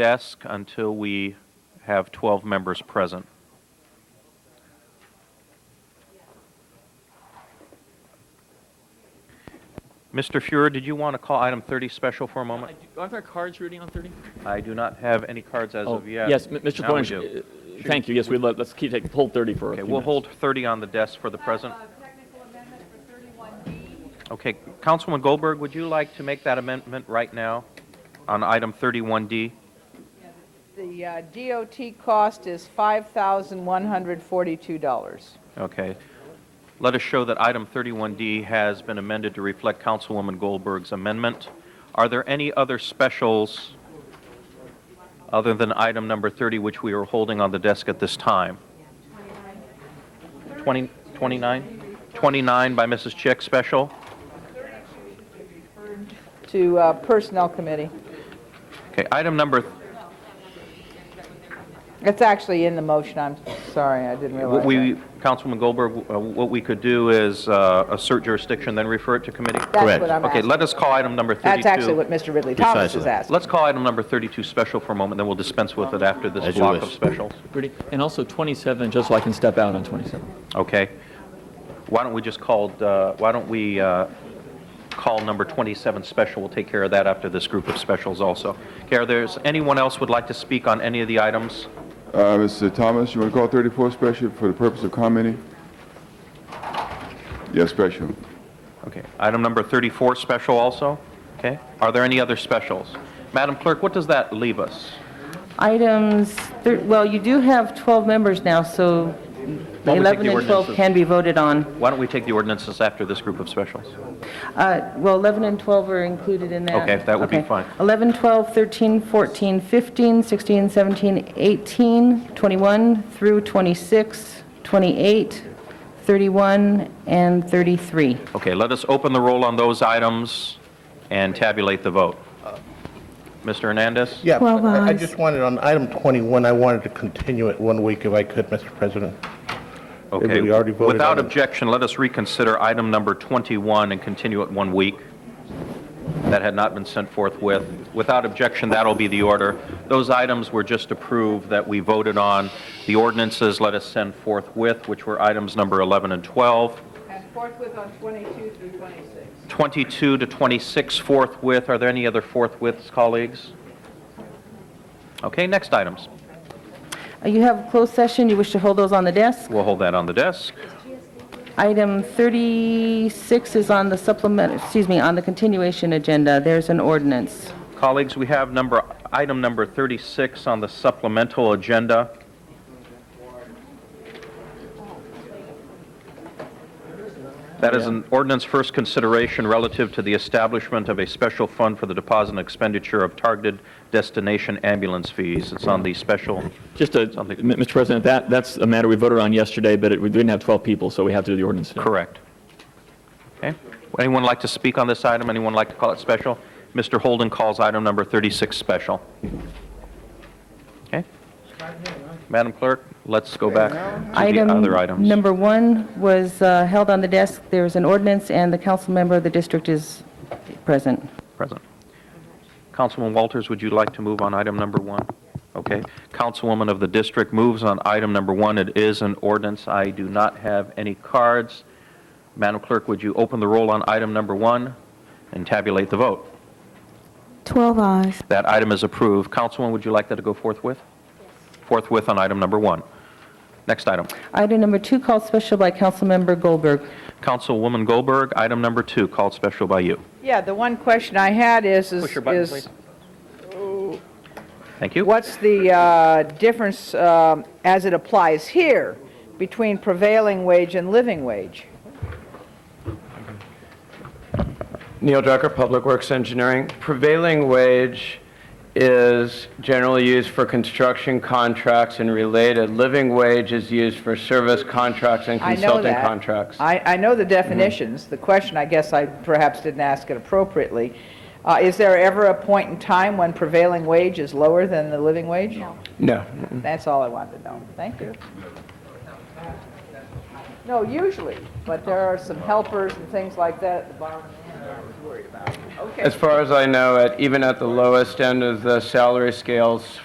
desk until we have 12 members present. Mr. Fuhrer, did you want to call item 30 special for a moment? Are there cards reading on 30? I do not have any cards as of yet. Oh, Yes, m- Mr. Now we Cornish, do. uh, thank you, yes, we, let- let's keep, taking hold 30 for a Okay, few we'll hold minutes. 30 on the desk for the present. Uh, Technical amendment for 31B. Okay, Councilman Goldberg, would you like to make that amendment right now on item 31D? The uh, DOT cost is $5,142. Okay. Let us show that item 31D has been amended to reflect Councilwoman Goldberg's amendment. Are there any other specials other than item number 30, which we are holding on the desk at this time? 20 29? 29 by Mrs. Chick special? To uh, Personnel Committee. Okay, item number, It's actually in the motion, I'm sorry, I didn't realize what we, that. Councilwoman Goldberg, uh, what we could do is uh, assert jurisdiction, then refer it to committee? That's what I'm Okay, asking. let us call item number 32. That's actually what Mr. Ridley Thomas is Precisely. asking. Let's call item number 32 special for a moment, then we'll dispense with it after this As you block wish. of specials. Ready? And also 27, just so I can step out on 27. Okay. Why don't we just call, uh, why don't we uh, call number 27 special? We'll take care of that after this group of specials also. Okay, are there's anyone else would like to speak on any of the items? Uh, Mr. Thomas, you want to call 34 special for the purpose of commenting? Yes, special. Okay, item number 34 special also? Okay, are there any other specials? Madam Clerk, what does that leave us? Items, thir- well, you do have 12 members now, so Why don't we take 11 the and 12 ordinances? can be voted on. Why don't we take the ordinances after this group of specials? Uh, Well, 11 and 12 are included in that. Okay, that would be Okay. fine. 11, 12, 13, 14, 15, 16, 17, 18, 21 through 26, 28, 31, and 33. Okay, let us open the roll on those items and tabulate the vote. Mr. Hernandez? Yeah, Twelve I I ayes. just wanted, on item 21, I wanted to continue it one week if I could, Mr. President. Okay. we already voted Without on it. objection, let us reconsider item number 21 and continue it one week. That had not been sent forthwith. Without objection, that'll be the order. Those items were just approved that we voted on. The ordinances let us send forthwith, which were items number 11 and 12. And forthwith on 22 through 26. 22 to 26 forthwith. Are there any other forthwiths, colleagues? Okay, next items. Uh, You have closed session, you wish to hold those on the desk? We'll hold that on the desk. Item 36 is on the supplement, excuse me, on the continuation agenda. There's an ordinance. Colleagues, we have number, item number 36 on the supplemental agenda. That is an ordinance first consideration relative to the establishment of a special fund for the deposit and expenditure of targeted destination ambulance fees. It's on the special, Just to, M- Something- Mr. President, that, that's a matter we voted on yesterday, but it- we didn't have 12 people, so we have to do the ordinance. today. correct. Okay, anyone like to speak on this item? Anyone like to call it special? Mr. Holden calls item number 36 special. Okay? Madam Clerk, let's go back to the other Item items. number one was uh, held on the desk. There is an ordinance, and the council member of the district is present. Present. Councilman Walters, would you like to move on item number one? Okay. Councilwoman of the district moves on item number one. It is an ordinance. I do not have any cards. Madam Clerk, would you open the roll on item number one and tabulate the vote? 12 eyes. That item is approved. Councilwoman, would you like that to go forthwith? Forthwith on item number one. Next item. Item number two called special by council member Goldberg. Councilwoman Goldberg, item number two, called special by you. Yeah, the one question I had is, is... Push your button, is please. Thank you. What's the uh, difference um, as it applies here between prevailing wage and living wage? Neil Drucker, Public Works Engineering. Prevailing wage is generally used for construction contracts and related. Living wage is used for service contracts and I know consulting that. contracts. I, I know the definitions. The question, I guess I perhaps didn't ask it appropriately. Uh, Is there ever a point in time when prevailing wage is lower than the living wage? No. No. That's all I wanted to know. Thank you. No, usually, but there are some helpers and things like that at the bottom. worried about. Okay. As far as I know, at, even at the lowest end of the salary scales